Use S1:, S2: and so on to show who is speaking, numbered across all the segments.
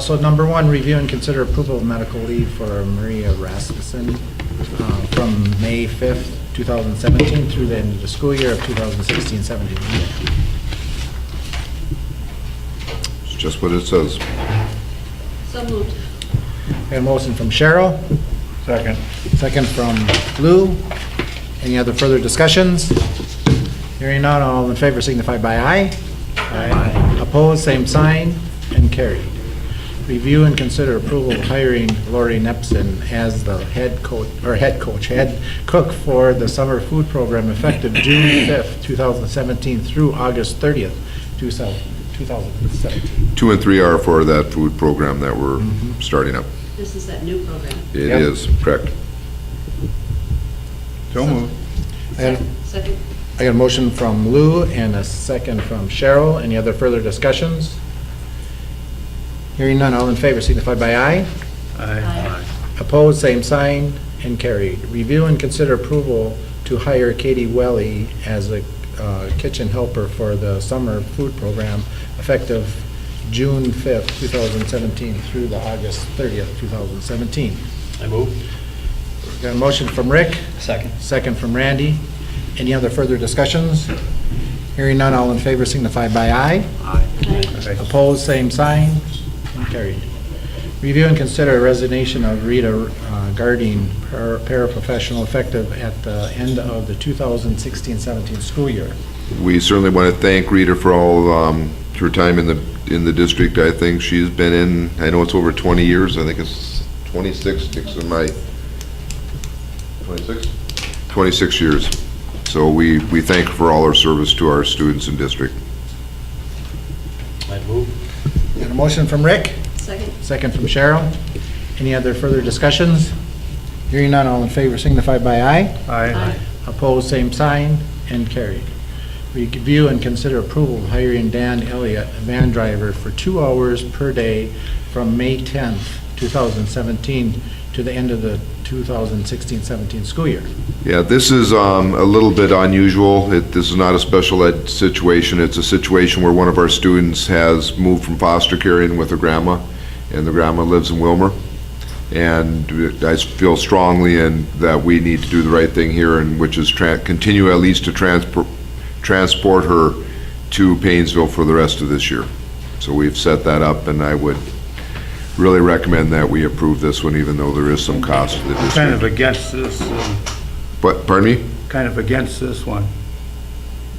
S1: So number one, review and consider approval of medical leave for Maria Rasmussen uh, from May 5th, 2017 through the end of the school year of 2016-17.
S2: It's just what it says.
S3: So moved.
S1: We have a motion from Cheryl. Second. Second from Lou. Any other further discussions? Hearing none, all in favor signify by aye. Aye. Opposed, same sign, and carried. Review and consider approval of hiring Lori Nepson as the head coach, or head coach, head cook for the summer food program effective June 5th, 2017 through August 30th, 2017.
S2: Two and three are for that food program that we're starting up.
S3: This is that new program.
S2: It
S1: Yep.
S2: is, correct. So moved.
S1: And
S3: Second,
S1: I got a motion from Lou and a second from Cheryl. Any other further discussions? Hearing none, all in favor signify by aye.
S3: Aye.
S1: Opposed, same sign, and carried. Review and consider approval to hire Katie Welly as a uh, kitchen helper for the summer food program effective June 5th, 2017 through the August 30th, 2017.
S4: I move.
S1: Got a motion from Rick?
S4: Second.
S1: Second from Randy. Any other further discussions? Hearing none, all in favor signify by aye. Opposed, same sign. And Carried. Review and consider resignation of Rita uh, Garding, par- paraprofessional, effective at the end of the 2016-17 school year.
S2: We certainly want to thank Rita for all, um, her time in the, in the district. I think she's been in, I know it's over 20 years, I think it's 26, six of my, 26? 26 years. So we, we thank her for all her service to our students and district.
S4: I move.
S1: Got a motion from Rick,
S3: second,
S1: second from Cheryl. Any other further discussions? Hearing none, all in favor signify by aye.
S3: Aye.
S1: Opposed, same sign, and carried. Review and consider approval of hiring Dan Elliott, a van driver, for two hours per day from May 10th, 2017 to the end of the 2016-17 school year.
S2: Yeah, this is um, a little bit unusual. It- This is not a special ed situation. It's a situation where one of our students has moved from foster care in with her grandma, and the grandma lives in Wilmer. And I feel strongly in that we need to do the right thing here, and which is tran- continue at least to transport, transport her to Painesville for the rest of this year. So we've set that up, and I would really recommend that we approve this one, even though there is some cost to the
S5: kind of
S2: district.
S5: against this, um,
S2: But, pardon me?
S5: kind of against this one.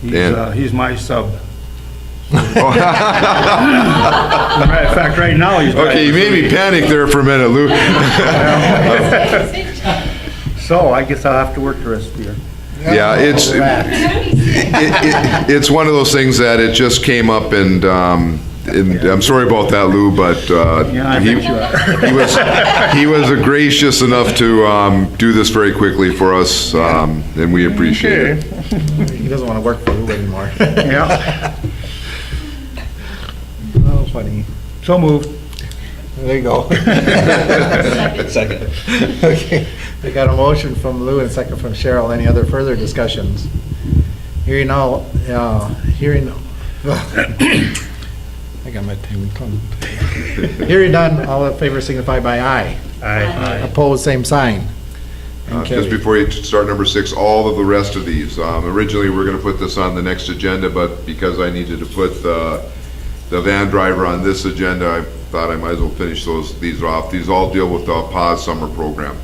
S5: He's,
S2: Dan.
S5: uh, he's my sub. As a matter of fact, right now, he's.
S2: Okay, you made me panic there for a minute, Lou.
S5: So I guess I'll have to work the rest of the year.
S2: Yeah, it's, it- it- it's one of those things that it just came up and, um, and I'm sorry about that, Lou, but, uh,
S5: Yeah, I
S2: he,
S5: bet you are.
S2: he was, he was gracious enough to, um, do this very quickly for us, um, and we appreciate it.
S1: He doesn't want to work for Lou anymore.
S5: Yeah,
S1: Oh, funny.
S5: so moved.
S1: There you go.
S4: Second.
S1: Okay, we got a motion from Lou and a second from Cheryl. Any other further discussions? Hearing all, uh, hearing, I got my tongue clumped. Hearing none, all in favor signify by aye.
S3: Aye.
S1: Opposed, same sign. And
S2: Uh, Just
S1: carried.
S2: before you start number six, all of the rest of these, um, originally, we we're gonna put this on the next agenda, but because I needed to put the, the van driver on this agenda, I thought I might as well finish those, these off. These all deal with the PAS summer program.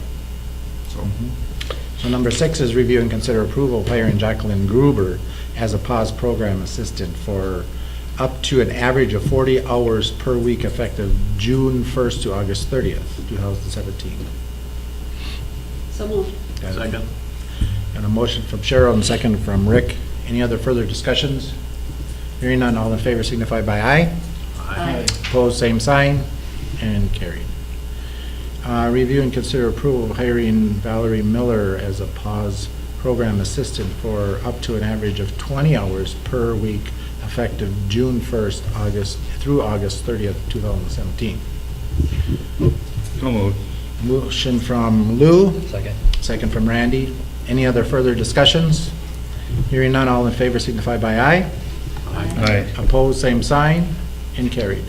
S1: So number six is review and consider approval of hiring Jacqueline Gruber as a PAS program assistant for up to an average of 40 hours per week effective June 1st to August 30th, 2017.
S3: so moved.
S1: Second. And a motion from Cheryl and a second from Rick. Any other further discussions? Hearing none, all in favor signify by aye.
S3: Aye.
S1: Opposed, same sign, and carried. Uh, Review and consider approval of hiring Valerie Miller as a PAWS program assistant for up to an average of 20 hours per week effective June 1st, August, through August 30th, 2017.
S5: So moved.
S1: Motion from Lou.
S4: Second.
S1: Second from Randy. Any other further discussions? Hearing none, all in favor signify by aye.
S5: Aye.
S1: Opposed, same sign, and carried.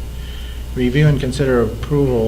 S1: Review and consider approval